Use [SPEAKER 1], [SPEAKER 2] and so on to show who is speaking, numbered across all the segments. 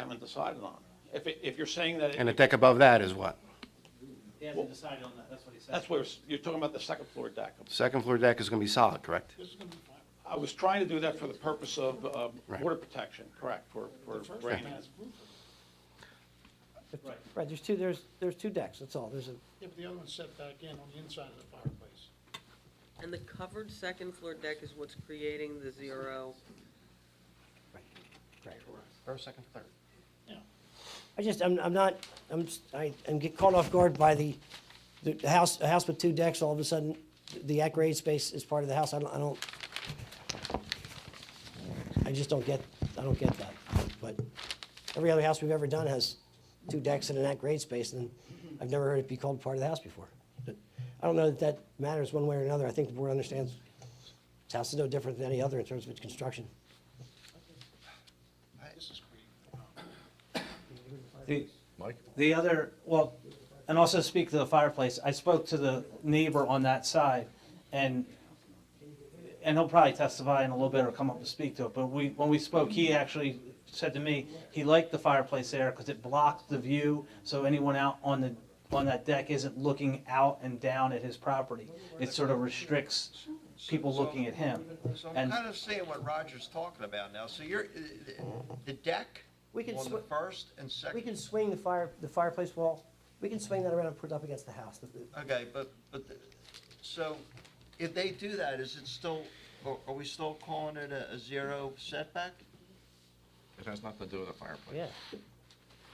[SPEAKER 1] haven't decided on. If, it- if you're saying that,
[SPEAKER 2] And the
[SPEAKER 1] it-
[SPEAKER 2] deck above that is what?
[SPEAKER 3] They haven't decided on that, that's what he said.
[SPEAKER 1] that's where, s- you're talking about the second floor deck.
[SPEAKER 2] Second floor deck is going to be solid, correct?
[SPEAKER 1] I was trying to do that for the purpose of um,
[SPEAKER 2] Right.
[SPEAKER 1] water protection, correct, for, for rain.
[SPEAKER 3] Right.
[SPEAKER 4] Right, there's two, there's, there's two decks, that's all. There's a,
[SPEAKER 5] Yeah, but the other one's set back in on the inside of the fireplace.
[SPEAKER 6] And the covered second floor deck is what's creating the zero.
[SPEAKER 2] First, second, third.
[SPEAKER 4] I just, I'm, I'm not, I'm, s- I, I'm get caught off guard by the, the the house, a house with two decks, all of a sudden, the at grade space is part of the house. I don't, I don't, I just don't get, I don't get that. But every other house we've ever done has two decks and an at grade space, and I've never heard it be called part of the house before. But I don't know that that matters one way or another. I think the board understands this house is no different than any other in terms of its construction.
[SPEAKER 5] This is creating
[SPEAKER 3] The- The other, well, and also speak to the fireplace, I spoke to the neighbor on that side, and, and he'll probably testify in a little bit or come up and speak to it, but we, when we spoke, he actually said to me, he liked the fireplace there because it blocked the view, so anyone out on the, on that deck isn't looking out and down at his property. It sort of restricts people looking at him.
[SPEAKER 7] So I'm
[SPEAKER 3] And,
[SPEAKER 7] kind of seeing what Roger's talking about now. So you're, uh, the deck
[SPEAKER 4] We can
[SPEAKER 7] on the
[SPEAKER 4] swi-
[SPEAKER 7] first and
[SPEAKER 4] We can
[SPEAKER 7] second,
[SPEAKER 4] swing the fire, the fireplace wall, we can swing that around and put it up against the house. The- the-
[SPEAKER 7] okay, but, but, the- so if they do that, is it still, are are we still calling it a a zero setback?
[SPEAKER 8] It has nothing to do with the fireplace.
[SPEAKER 4] Yeah,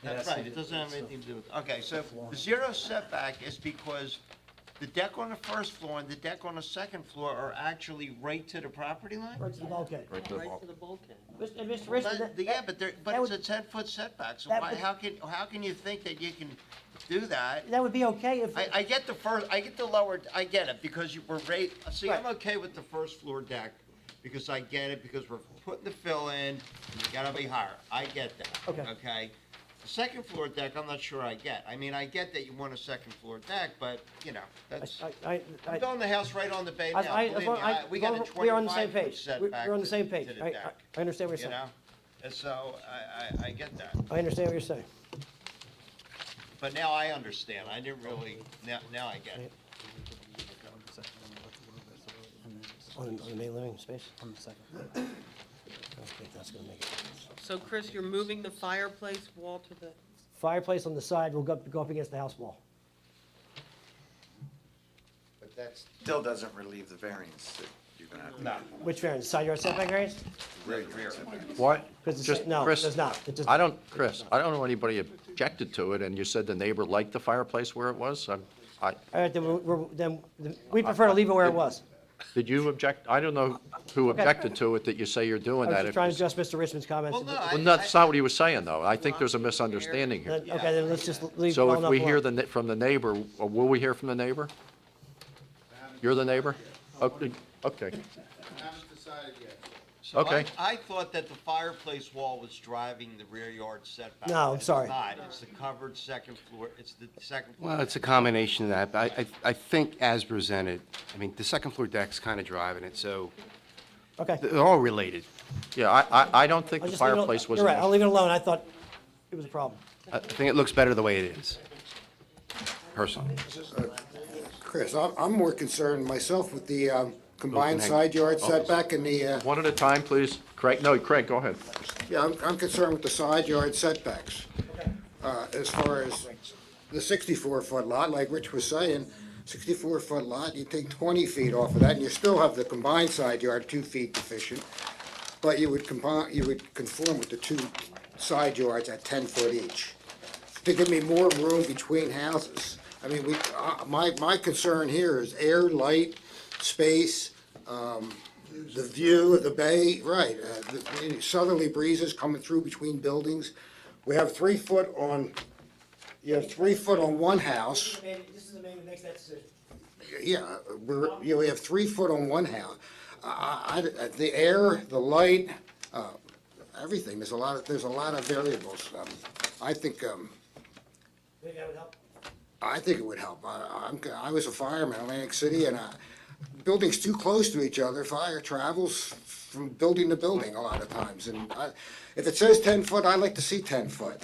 [SPEAKER 7] That's
[SPEAKER 3] Yes, it
[SPEAKER 7] right, it doesn't have
[SPEAKER 3] is.
[SPEAKER 7] anything to do with, okay, so the zero setback is because the deck on the first floor and the deck on the second floor are actually right to the property line?
[SPEAKER 4] or it's the bulkhead.
[SPEAKER 8] Right to the bulk.
[SPEAKER 6] the bulkhead.
[SPEAKER 4] Mr. and Mr. Richmond,
[SPEAKER 7] But,
[SPEAKER 4] that-
[SPEAKER 7] yeah, but there, but
[SPEAKER 4] that
[SPEAKER 7] it's a
[SPEAKER 4] would-
[SPEAKER 7] ten-foot setback, so
[SPEAKER 4] that
[SPEAKER 7] why,
[SPEAKER 4] would-
[SPEAKER 7] how can, how can you think that you can do that?
[SPEAKER 4] that would be okay if,
[SPEAKER 7] I, I get the first, I get the lower, I get it, because you were rate, see, I'm
[SPEAKER 4] Right.
[SPEAKER 7] okay with the first floor deck, because I get it, because we're putting the fill in, and you gotta be higher, I get that.
[SPEAKER 4] Okay.
[SPEAKER 7] Okay? The second floor deck, I'm not sure I get, I mean, I get that you want a second floor deck, but, you know, that's,
[SPEAKER 4] I, I,
[SPEAKER 7] I'm
[SPEAKER 4] I,
[SPEAKER 7] building the house right on the bay
[SPEAKER 4] I-
[SPEAKER 7] now,
[SPEAKER 4] I- as
[SPEAKER 7] believe me,
[SPEAKER 4] long- I-
[SPEAKER 7] I, we got a
[SPEAKER 4] as long- we are on the same page.
[SPEAKER 7] twenty-five foot
[SPEAKER 4] We're-
[SPEAKER 7] setback
[SPEAKER 4] we're on the
[SPEAKER 7] to-
[SPEAKER 4] same
[SPEAKER 7] to
[SPEAKER 4] page. I- I-
[SPEAKER 7] deck,
[SPEAKER 4] I understand what you're
[SPEAKER 7] you
[SPEAKER 4] saying.
[SPEAKER 7] know? And so, I, I, I get that.
[SPEAKER 4] I understand what you're saying.
[SPEAKER 7] But now I understand, I didn't really, now, now I get it.
[SPEAKER 4] On, on the main living space? On the second. I don't think that's gonna make it.
[SPEAKER 6] So Chris, you're moving the fireplace wall to the,
[SPEAKER 4] Fireplace on the side will go, up- go up against the house wall.
[SPEAKER 9] But that still doesn't relieve the variance that you're gonna have to.
[SPEAKER 4] Which variance, side yard setback variance?
[SPEAKER 9] Rear yard setback.
[SPEAKER 8] What?
[SPEAKER 4] Because
[SPEAKER 8] Just-
[SPEAKER 4] it's, no, it
[SPEAKER 8] Chris,
[SPEAKER 4] does not. It does-
[SPEAKER 8] I don't, Chris, I don't know anybody objected to it, and you said the neighbor liked the fireplace where it was? I'm- I,
[SPEAKER 4] All right, then we're- we're, then, we prefer to leave it where it was.
[SPEAKER 8] did you object? I don't know who objected to it that you say you're
[SPEAKER 4] I
[SPEAKER 8] doing
[SPEAKER 4] was
[SPEAKER 8] that.
[SPEAKER 4] just
[SPEAKER 8] If
[SPEAKER 4] trying to
[SPEAKER 8] you-
[SPEAKER 4] address Mr. Richmond's comments.
[SPEAKER 7] Well, no, I-
[SPEAKER 8] Well, no, that's not what he was saying, though. I think there's a misunderstanding here.
[SPEAKER 4] Then- Okay, then let's just leave.
[SPEAKER 8] So
[SPEAKER 4] well
[SPEAKER 8] if
[SPEAKER 4] enough
[SPEAKER 8] we hear
[SPEAKER 4] alone.
[SPEAKER 8] the, ne- from the neighbor, uh, will we hear from the neighbor? You're the neighbor? Okay, okay.
[SPEAKER 9] Haven't decided yet.
[SPEAKER 7] So I-
[SPEAKER 8] Okay.
[SPEAKER 7] I thought that the fireplace wall was driving the rear yard setback.
[SPEAKER 4] No, I'm
[SPEAKER 7] It's
[SPEAKER 4] sorry.
[SPEAKER 7] not. It's the covered second floor, it's the second floor.
[SPEAKER 2] Well, it's a combination of that, but I, I I think as presented, I mean, the second floor deck's kind of driving it, so
[SPEAKER 4] Okay.
[SPEAKER 2] they're all related.
[SPEAKER 8] Yeah, I, I, I don't think
[SPEAKER 4] I'll
[SPEAKER 8] the
[SPEAKER 4] just leave it al-
[SPEAKER 8] fireplace was.
[SPEAKER 4] You're
[SPEAKER 8] an
[SPEAKER 4] right, I'll
[SPEAKER 8] issue.
[SPEAKER 4] leave it alone, I thought it was a problem.
[SPEAKER 2] I I think it looks better the way it is, personally.
[SPEAKER 10] Chris, I'm, I'm more concerned myself with the um, combined
[SPEAKER 2] Open
[SPEAKER 10] side yard
[SPEAKER 2] Oh, it's-
[SPEAKER 10] setback and the, uh,
[SPEAKER 8] One at a time, please. Craig, no, Craig, go ahead.
[SPEAKER 10] yeah, I'm, I'm concerned with the side yard setbacks. Uh, As far as the 64-foot lot, like Rich was saying, 64-foot lot, you take 20 feet off of that, and you still have the combined side yard two feet deficient, but you would combine, you would conform with the two side yards at 10 foot each. to give me more room between houses. I mean, we, uh, my, my concern here is air, light, space, um, the view of the bay, right, uh, the any southerly breezes coming through between buildings. We have three foot on, you have three foot on one house,
[SPEAKER 4] This is the man who makes that decision.
[SPEAKER 10] yeah, we're, you know, we have three foot on one house. I, I- I, the air, the light, uh, everything, there's a lot of, there's a lot of variables. Um, I think, um,
[SPEAKER 4] Maybe that would help.
[SPEAKER 10] I think it would help. I, I'm, I was a fireman in Atlantic City and, uh, buildings too close to each other, fire travels, from building to building a lot of times. And I, if it says ten foot, I like to see ten foot.